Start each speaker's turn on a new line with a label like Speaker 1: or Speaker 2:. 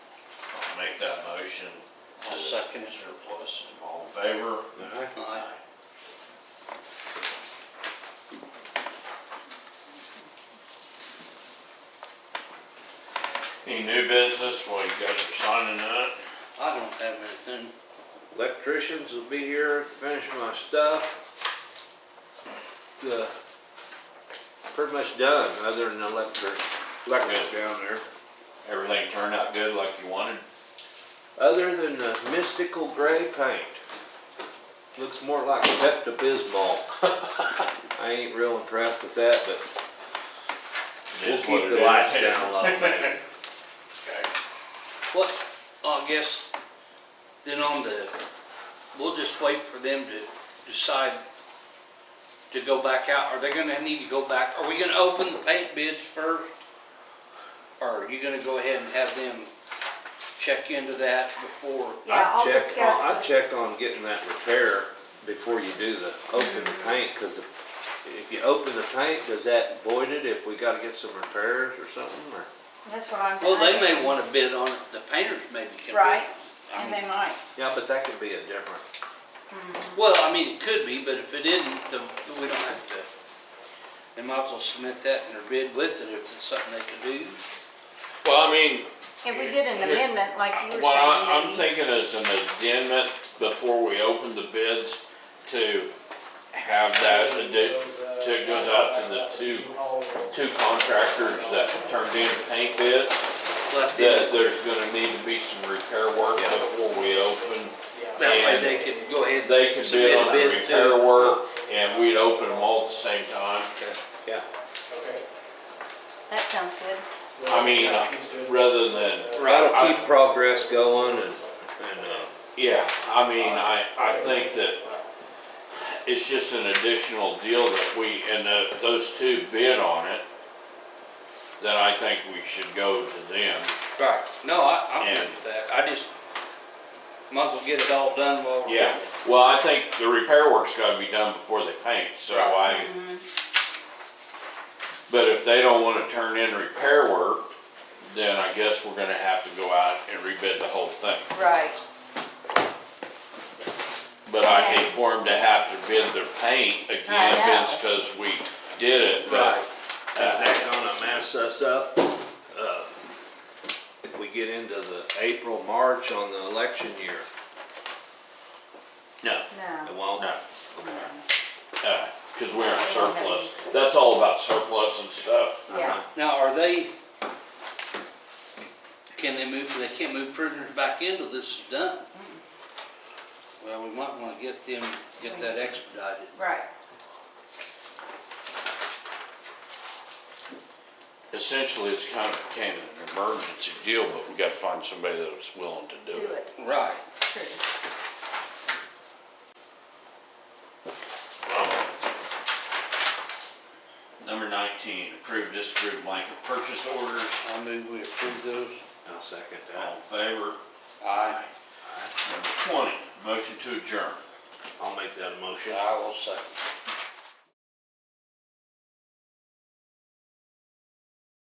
Speaker 1: make that motion.
Speaker 2: I'll second it.
Speaker 1: Surplus, all in favor?
Speaker 2: Aye.
Speaker 1: Any new business while you guys are signing up?
Speaker 2: I don't have anything.
Speaker 3: Electricians will be here to finish my stuff. The, pretty much done, other than the electric, electric down there.
Speaker 1: Everything turned out good like you wanted?
Speaker 3: Other than the mystical gray paint. Looks more like Pepto Bismol. I ain't real impressed with that, but
Speaker 1: It
Speaker 3: we'll
Speaker 1: is what
Speaker 3: keep the
Speaker 1: it is.
Speaker 3: lights down a little bit.
Speaker 1: Okay.
Speaker 2: What, I guess, then on the, we'll just wait for them to decide to go back out. Are they gonna need to go back? Are we gonna open the paint bids first? Or are you gonna go ahead and have them check into that before?
Speaker 3: I'd
Speaker 4: Yeah, I'll
Speaker 3: check on-
Speaker 4: discuss it.
Speaker 3: I'd check on getting that repair before you do the, open the paint, cause if, if you open the paint, does that void it if we gotta get some repairs or something, or?
Speaker 4: That's what I'm.
Speaker 2: Well, they may
Speaker 4: thinking.
Speaker 2: wanna bid on it. The painters maybe can bid.
Speaker 4: Right,
Speaker 2: I
Speaker 4: and
Speaker 2: mean,
Speaker 4: they might.
Speaker 3: Yeah, but that could be a different,
Speaker 2: Well, I mean, it could be, but if it isn't, the, we don't have to. They might as well submit that in their bid with it if it's something they can do.
Speaker 1: Well, I mean,
Speaker 4: If we did an
Speaker 1: Here-
Speaker 4: amendment like you were
Speaker 1: What I- I'm
Speaker 4: saying, maybe.
Speaker 1: thinking is an amendment before we open the bids to have that, addi- to goes out to the two, two contractors that turned in paint bids,
Speaker 2: Let them,
Speaker 1: that there's gonna need to be some repair work before we open.
Speaker 2: that way
Speaker 1: and-
Speaker 2: they can go ahead. and
Speaker 1: They could
Speaker 2: submit
Speaker 1: bid
Speaker 2: a
Speaker 1: on the
Speaker 2: bid to-
Speaker 1: repair work and we'd open them all at the same time,
Speaker 2: Okay.
Speaker 3: yeah.
Speaker 4: That sounds good.
Speaker 1: I mean, uh, rather than,
Speaker 3: That'll keep progress going and, and, uh,
Speaker 1: yeah, I mean, I, I think that it's just an additional deal that we, and uh, those two bid on it, then I think we should go to them.
Speaker 2: Right, no, I, I'm
Speaker 1: Yeah.
Speaker 2: good with that, I just, might as well get it all done while. we're-
Speaker 1: Yeah, well, I think the repair work's gotta be done before they paint, so I, but if they don't wanna turn in repair work, then I guess we're gonna have to go out and rebid the whole thing.
Speaker 4: Right,
Speaker 1: But I hate for them to have to bid their paint again,
Speaker 4: I know.
Speaker 1: it's cause we did it,
Speaker 3: Right.
Speaker 1: but.
Speaker 3: is that gonna mess us up? uh, If we get into the April, March on the election year,
Speaker 1: No,
Speaker 3: it
Speaker 4: no.
Speaker 3: won't.
Speaker 1: no, no, cause we aren't surplus, that's all about surplus and stuff.
Speaker 4: Yeah,
Speaker 2: Now, are they, can they move, they can't move prisoners back in till this is done? Well, we might wanna get them, get that expedited.
Speaker 4: right.
Speaker 1: Essentially, it's kind of became an emergency deal, but we gotta find somebody that was willing to
Speaker 4: Do
Speaker 1: do it.
Speaker 4: it.
Speaker 2: Right.
Speaker 4: It's true.
Speaker 1: Number nineteen, approve, disapprove blanket purchase orders,
Speaker 2: I move we approve those.
Speaker 3: I'll second
Speaker 1: all
Speaker 3: that.
Speaker 1: in favor?
Speaker 2: Aye.
Speaker 1: Number twenty, motion to adjourn.
Speaker 3: I'll make that a motion.
Speaker 2: I will second.